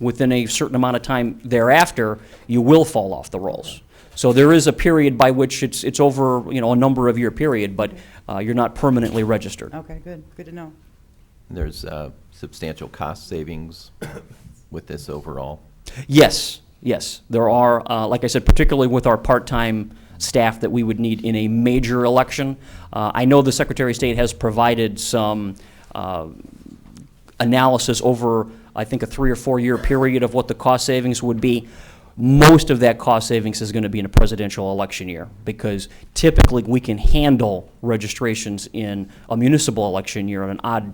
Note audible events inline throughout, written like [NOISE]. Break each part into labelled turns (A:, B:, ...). A: within a certain amount of time thereafter, you will fall off the rolls. So there is a period by which it's, it's over, you know, a number of year period, but uh, you're not permanently registered.
B: Okay, good, good to know.
C: There's uh, substantial cost savings with this overall.
A: Yes, yes, there are, uh, like I said, particularly with our part-time staff that we would need in a major election. Uh, I know the Secretary of State has provided some uh, analysis over, I think, a three or four-year period of what the cost savings would be. Most of that cost savings is going to be in a presidential election year, because typically, we can handle registrations in a municipal election year on an odd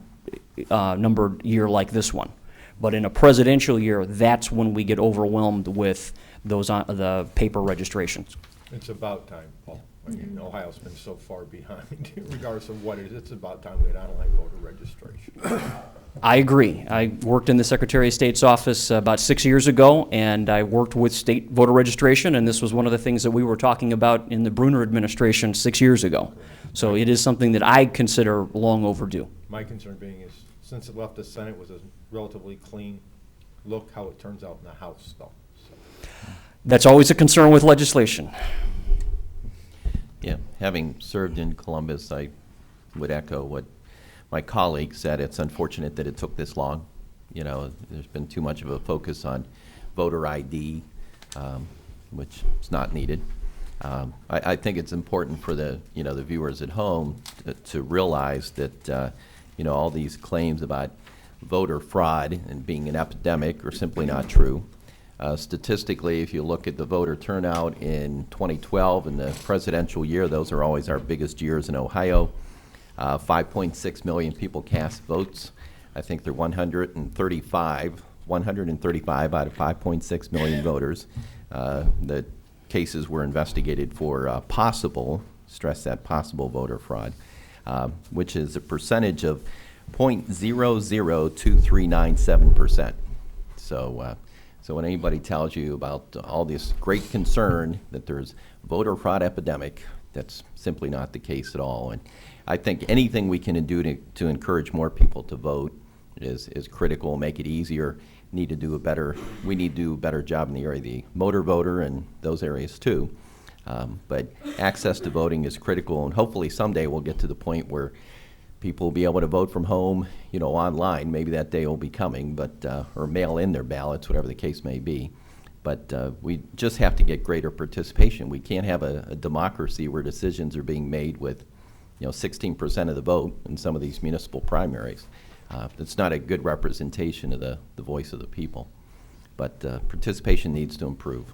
A: uh, numbered year like this one. But in a presidential year, that's when we get overwhelmed with those, on- the paper registrations.
D: It's about time, Paul. I
E: Mm-hmm.
D: mean, Ohio's been so far behind, [LAUGHS] regardless of what it is, it's about time we had online voter registration.
A: I agree. I worked in the Secretary of State's office about six years ago, and I worked with state voter registration, and this was one of the things that we were talking about in the Bruner administration six years ago. So it is something that I consider long overdue.
D: My concern being is, since it left the Senate, it was a relatively clean look how it turns out in the House, though. So,
A: That's always a concern with legislation.
C: Yeah, having served in Columbus, I would echo what my colleague said. It's unfortunate that it took this long. You know, there's been too much of a focus on voter ID, um, which is not needed. Um, I, I think it's important for the, you know, the viewers at home to- to realize that, uh, you know, all these claims about voter fraud and being an epidemic are simply not true. Uh, Statistically, if you look at the voter turnout in 2012 and the presidential year, those are always our biggest years in Ohio. Uh, 5.6 million people cast votes. I think they're 135, 135 out of 5.6 million voters. Uh, The cases were investigated for uh, possible, stress that, possible voter fraud, uh, which is a percentage of 0.002397%. So, uh, so when anybody tells you about all this great concern that there's voter fraud epidemic, that's simply not the case at all. And I think anything we can do to, to encourage more people to vote is, is critical, make it easier. Need to do a better, we need to do a better job in the area of the motor voter and those areas too. Um, But access to voting is critical, and hopefully someday we'll get to the point where people will be able to vote from home, you know, online. Maybe that day will be coming, but, uh, or mail in their ballots, whatever the case may be. But uh, we just have to get greater participation. We can't have a a democracy where decisions are being made with, you know, 16% of the vote in some of these municipal primaries. Uh, It's not a good representation of the, the voice of the people. But uh, participation needs to improve.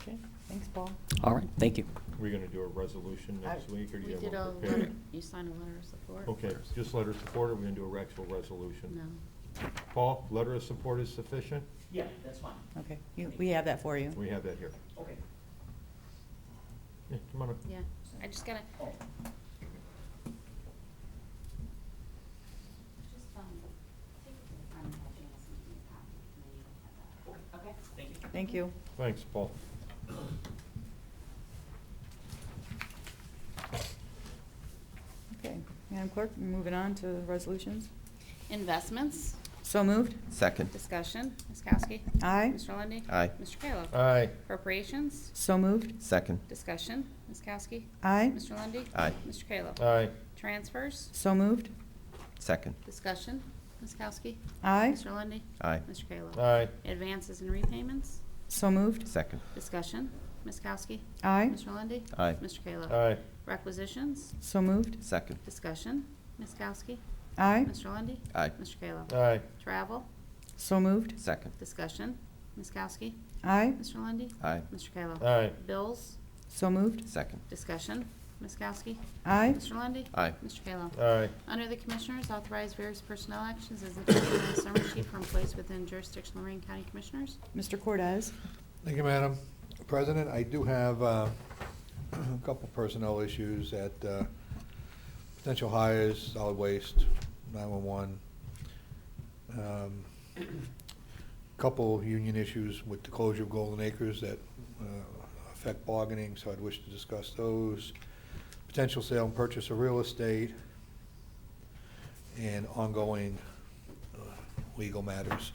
B: Okay, thanks, Paul.
A: All right, thank you.
D: We're gonna do a resolution next
B: I-
D: week, or do
E: We
D: you have
E: did a
D: one
E: letter,
D: prepared?
E: you signed a letter of support.
D: Okay, just letter of support, or we're gonna do a actual resolution?
E: No.
D: Paul, letter of support is sufficient?
A: Yeah, that's fine.
B: Okay, you- we have that for you.
D: We have that here.
A: Okay.
D: Yeah, come on up.
E: Yeah, I just gotta. Just, um, take a time and help me with something that's happening, and you don't have that. Okay, thank you.
B: Thank you.
D: Thanks, Paul.
B: Okay, Madam Clerk, moving on to resolutions.
E: Investments,
B: So moved.
C: Second,
E: discussion, Ms. Kowski.
B: Aye.
E: Mr. Lundy.
C: Aye.
E: Mr. Kayla.
D: Aye,
E: Appropriations,
B: So moved.
C: second,
E: discussion, Ms. Kowski.
B: Aye.
E: Mr. Lundy.
C: Aye.
E: Mr. Kayla.
D: aye,
E: Transfers,
B: So moved.
C: second,
E: discussion, Ms. Kowski.
B: Aye.
E: Mr. Lundy.
C: aye,
E: Mr. Kayla.
D: aye,
E: Advances and repayments,
B: So moved.
C: second,
E: discussion, Ms. Kowski.
B: Aye.
E: Mr. Lundy.
C: Aye.
E: Mr. Kayla.
D: aye,
E: Requisitions,
B: So moved.
C: second,
E: discussion, Ms. Kowski.
B: Aye.
E: Mr. Lundy,
C: aye,
E: Mr. Kayla.
D: aye,
E: Travel,
B: So moved.
C: second,
E: discussion, Ms. Kowski.
B: Aye.
E: Mr. Lundy,
C: aye,
E: Mr. Kayla.
D: aye,
E: Bills,
B: So moved.
C: second,
E: discussion, Ms. Kowski.
B: Aye.
E: Mr. Lundy,
C: aye,
E: Mr. Kayla.
D: aye,
E: Under the Commissioners, authorize various personnel actions as indicated in the summary sheet for employees within jurisdiction of Lorraine County Commissioners.
B: Mr. Cordez?
F: Thank you, Madam President. I do have uh, [CLEARS THROAT] a couple personnel issues at uh, potential hires, solid waste, 911. Um, Couple union issues with the closure of Golden Acres that uh, affect bargaining, so I'd wish to discuss those. Potential sale and purchase of real estate, and ongoing uh, legal matters.